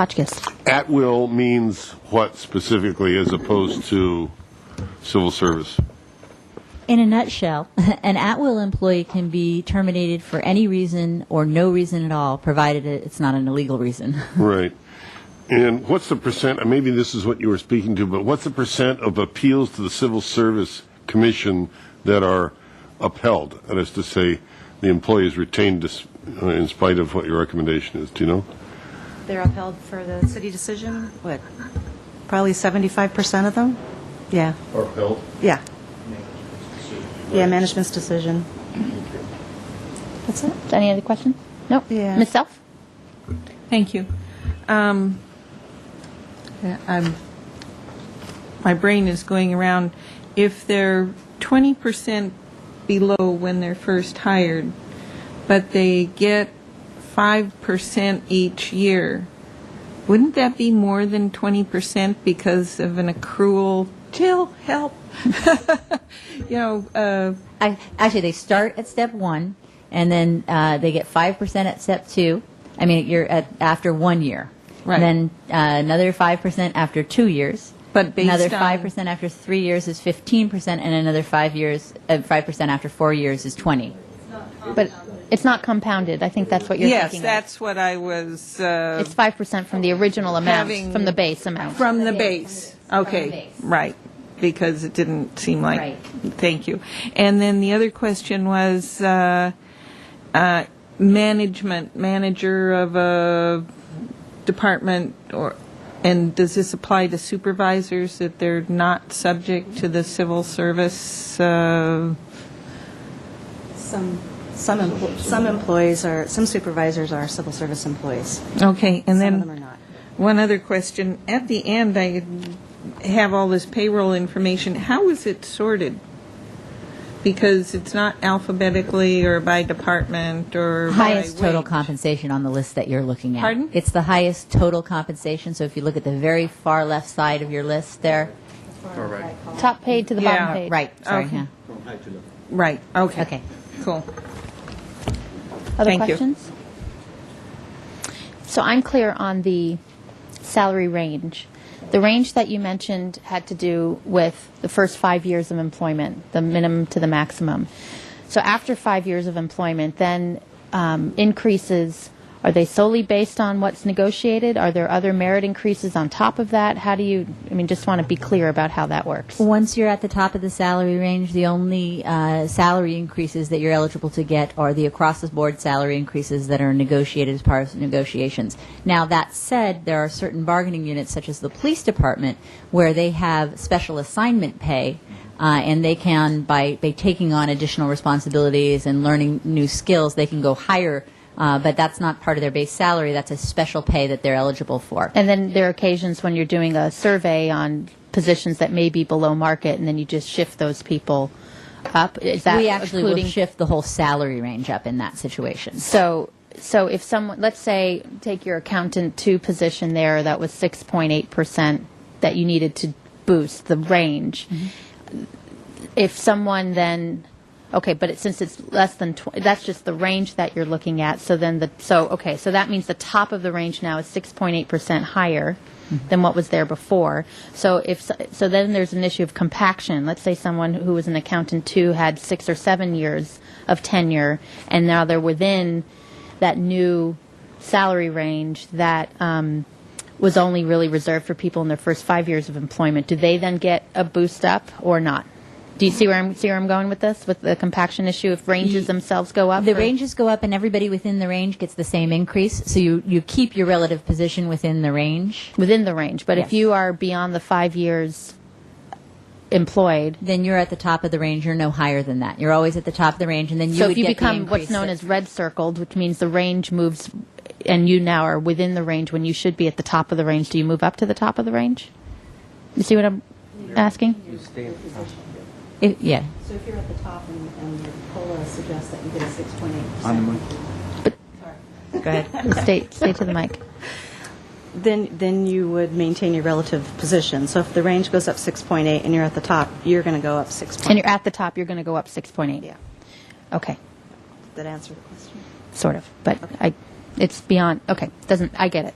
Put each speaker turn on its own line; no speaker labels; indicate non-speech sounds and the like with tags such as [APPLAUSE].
Hotchkiss.
At will means what specifically as opposed to civil service?
In a nutshell, [LAUGHS] an at-will employee can be terminated for any reason or no reason at all, provided it- it's not an illegal reason.
Right. And what's the percent, and maybe this is what you were speaking to, but what's the percent of appeals to the Civil Service Commission that are upheld? That is to say, the employee is retained dis- uh, in spite of what your recommendation is. Do you know?
They're upheld for the city decision, what, probably 75% of them? Yeah,
Upheld.
yeah. Yeah, management's decision. That's it?
Any other questions? Nope.
Yeah.
Ms. Self?
Thank you. Um, yeah, I'm, my brain is going around. If they're 20% below when they're first hired, but they get 5% each year, wouldn't that be more than 20% because of an accrual? Jill, help. [LAUGHS] you know, uh,
I, actually, they start at step one, and then uh, they get 5% at step two. I mean, you're at, after one year.
Right.
Then uh, another 5% after two years.
But based
Another
on-
5% after three years is 15%, and another five years, uh, 5% after four years is 20.
But it's not compounded. I think that's what you're
yes,
thinking.
that's what I was.
of.
Uh,
It's 5% from the original amount,
Having-
from the base amount.
From the base, okay,
base.
right, because it didn't seem like.
Right.
Thank you. And then the other question was uh, uh, management, manager of a department, or, and does this apply to supervisors, that they're not subject to the civil service? uh,
Some, some, empl- some employees are, some supervisors are civil service employees.
Okay,
Some
and then.
of them are not.
One other question. At the end, I have all this payroll information. How is it sorted? Because it's not alphabetically or by department or by
highest total
wage.
compensation on the list that you're looking at.
Pardon?
It's the highest total compensation. So if you look at the very far left side of your list there,
Top paid to the bottom
Yeah.
paid.
right? Sorry,
Okay.
yeah.
Right, okay.
Okay.
Cool.
Other
Thank you.
questions? So I'm clear on the salary range. The range that you mentioned had to do with the first five years of employment, the minimum to the maximum. So after five years of employment, then um, increases are they solely based on what's negotiated? Are there other merit increases on top of that? How do you? I mean, just want to be clear about how that works.
Once you're at the top of the salary range, the only uh, salary increases that you're eligible to get are the across the board salary increases that are negotiated as part of negotiations. Now, that said, there are certain bargaining units, such as the police department, where they have special assignment pay. Uh, and they can, by, by taking on additional responsibilities and learning new skills, they can go higher, uh, but that's not part of their base salary. That's a special pay that they're eligible for.
And then there are occasions when you're doing a survey on positions that may be below market, and then you just shift those people up. Is that
we actually
including?
will shift the whole salary range up in that situation.
so, so if someone, let's say, take your accountant two position there that was 6.8 percent that you needed to boost the range.
Mm-hmm.
If someone then, okay, but it, since it's less than tw- that's just the range that you're looking at. So then the so okay, so that means the top of the range now is 6.8 percent higher. Than what was there before. So if so, so, then there's an issue of compaction. Let's say someone who was an accountant too had six or seven years of tenure, and now they're within that new salary range that um, was only really reserved for people in their first five years of employment. Do they then get a boost up or not? Do you see where I'm see where I'm going with this with the compaction issue? If ranges themselves go up,
The
or-
ranges go up, and everybody within the range gets the same increase. So you, you keep your relative position within the range.
within the range, but if
Yes.
you are beyond the five years employed,
Then you're at the top of the range. You're no higher than that. You're always at the top of the range, and then you
so
would
if you
get the
become what's
increase
known
that-
as red circled, which means the range moves, and you now are within the range when you should be at the top of the range. Do you move up to the top of the range? You see what I'm asking?
It- yeah.
So if you're at the top and, and your COLA suggests that you get a 6.8%.
Go ahead.
stay, stay to the mic.
Then, then you would maintain your relative position. So if the range goes up 6.8 and you're at the top, you're going to go up 6.8.
And you're at the top, you're going to go up 6.8.
Yeah,
Okay,
that answer the question.
sort of. But I, it's beyond, okay, doesn't, I get it.